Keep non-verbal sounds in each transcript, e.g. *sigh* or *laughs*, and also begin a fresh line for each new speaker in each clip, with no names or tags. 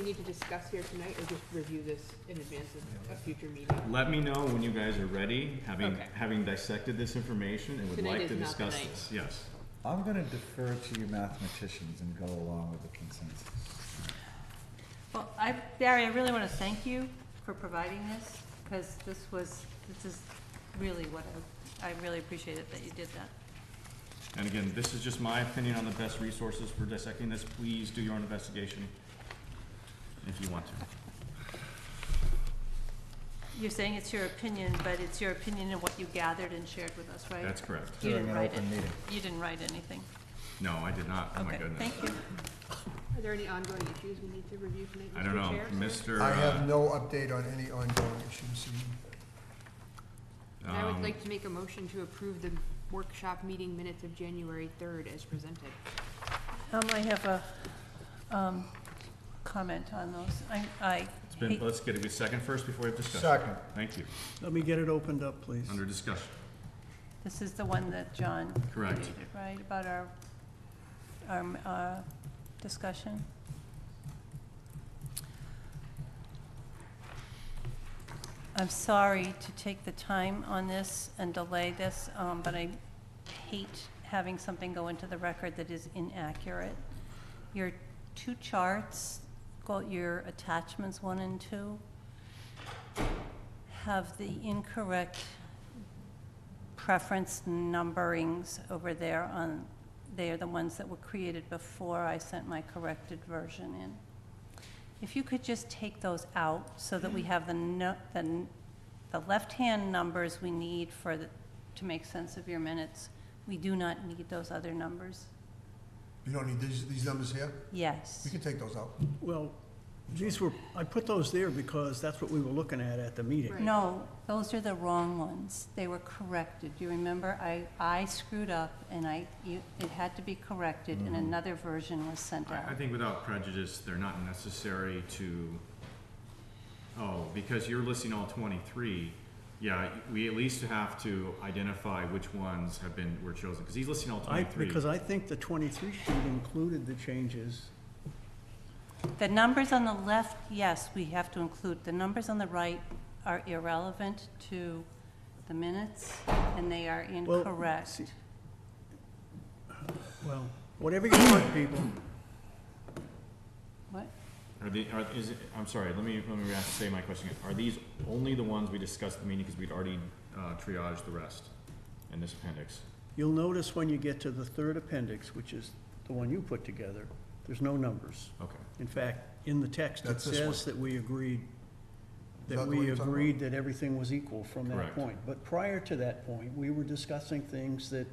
we need to discuss here tonight or just review this in advance of a future meeting?
Let me know when you guys are ready, having,
Okay.
having dissected this information and would
Tonight
like
is
to
not the
discuss
night.
this, yes.
I'm gonna defer to you mathematicians and go along with the consensus.
Well, I, Barry, I really want to thank you for providing this, because this was, this is really what I, I really appreciate it that you did that.
And again, this is just my opinion on the best resources for dissecting this, please do your own investigation if you want to.
You're saying it's your opinion, but it's your opinion and what you gathered and shared with us, right?
That's correct.
You
During
didn't
an
write
open
it.
meeting.
You didn't write anything.
No, I did not, oh my
Okay,
goodness.
Thank you.
Are there any ongoing issues we need to review tonight?
I don't
Mr.
know,
Chair, sir?
Mr.
I have
uh,
no update on any ongoing issues.
And I would
um,
like to make a motion to approve the workshop meeting minutes of January third as presented.
Um, I have a, um, comment on those. I, I
it's been,
hate,
let's get a second first before we have discussion.
Second.
Thank you,
Let me get it opened up, please.
under discussion,
this is the one that John
Correct.
created, right, about our, our, uh, discussion? I'm sorry to take the time on this and delay this, um, but I hate having something go into the record that is inaccurate. Your two charts, called your attachments one and two, have the incorrect preference numberings over there on, they are the ones that were created before I sent my corrected version in. If you could just take those out so that we have the, no- the, n- the left-hand numbers we need for the, to make sense of your minutes. We do not need those other numbers.
You don't need these, these numbers here?
Yes.
We can take those out.
Well, these were, I put those there because that's what we were looking at at the meeting.
Right.
No, those are the wrong ones. They were corrected. Do you remember? I, I screwed up and I, you, it had to be corrected and
Mm-hmm.
another version was sent out.
I, I think without prejudice, they're not necessary to, oh, because you're listing all twenty-three, yeah, we at least have to identify which ones have been, were chosen, because he's listing all
I,
twenty-three.
because I think the twenty-three sheet included the changes.
The numbers on the left, yes, we have to include. The numbers on the right are irrelevant to the minutes, and they are
Well,
incorrect.
see- Well, whatever you want, people.
What?
Are the, are, is it, I'm sorry, let me, let me ask, say my question again. Are these only the ones we discussed at the meeting, because we'd already, uh, triaged the rest in this appendix?
You'll notice when you get to the third appendix, which is the one you put together, there's no numbers.
Okay,
In fact, in the text, it
That's this one.
says that we
Is
agreed,
that
that
the one
we
you're talking about?
agreed that everything was equal from that
Correct.
point. But prior to that point, we were discussing things that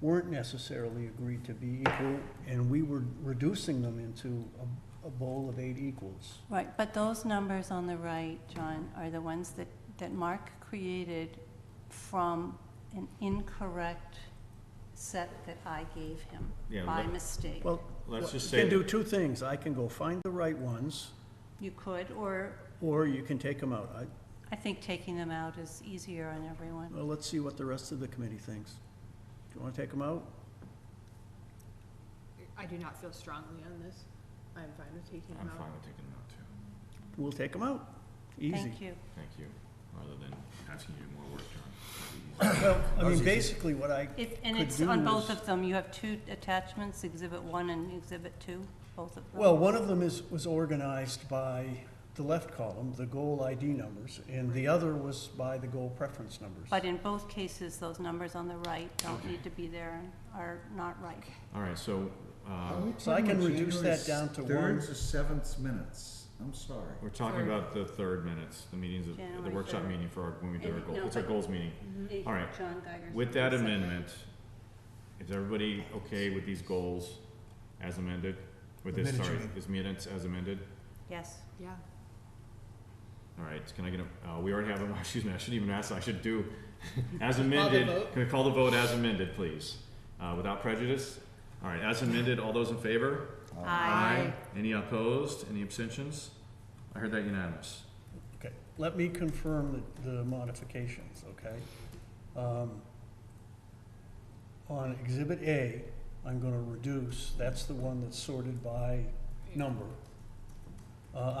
weren't necessarily agreed to be equal, and we were reducing them into a, a bowl of eight equals.
Right, but those numbers on the right, John, are the ones that, that Mark created from an incorrect set that I gave
Yeah,
him by
but-
mistake.
Well,
let's just
you
say,
can do
that-
two things. I can go find the right ones,
You could, or
or you can take them out. I,
I think taking them out is easier on everyone.
well, let's see what the rest of the committee thinks. Do you wanna take them out?
I do not feel strongly on this. I'm fine with taking
I'm
them out.
fine with taking them out too,
We'll take them out. Easy.
Thank you.
thank you, rather than asking you to do more work, John.
Well, I
That was
mean,
easy.
basically what I
If, and
could
it's
do
on both
is-
of them, you have two attachments, exhibit one and exhibit two, both of them.
Well, one of them is, was organized by the left column, the goal ID numbers, and the other was by the goal preference numbers.
But in both cases, those numbers on the right don't need to be there and are not right.
All right, so, uh,
So I can reduce that down to one.
Thirds or sevenths minutes, I'm sorry.
We're talking
Third.
about the third minutes, the meetings, of- the
January
workshop
third.
meeting for our, when we do our
And-
goals,
no,
it's our
but-
goals meeting. All right. With that amendment, is everybody okay with these goals as amended? With this,
Amended, you
sorry,
mean.
this minutes as amended?
Yes.
Yeah.
All right, can I get a, uh, we already have a, *laughs* excuse me, I shouldn't even ask, I should do, *laughs* as
the
amended.
vote.
Can we call the vote as amended, please? Uh, without prejudice? All right, as amended, all those in favor?
Uh,
Any opposed? Any abstentions? I heard that unanimous.
Okay, let me confirm the, the modifications, okay? Um, On exhibit A, I'm gonna reduce, that's the one that's sorted by number. Uh,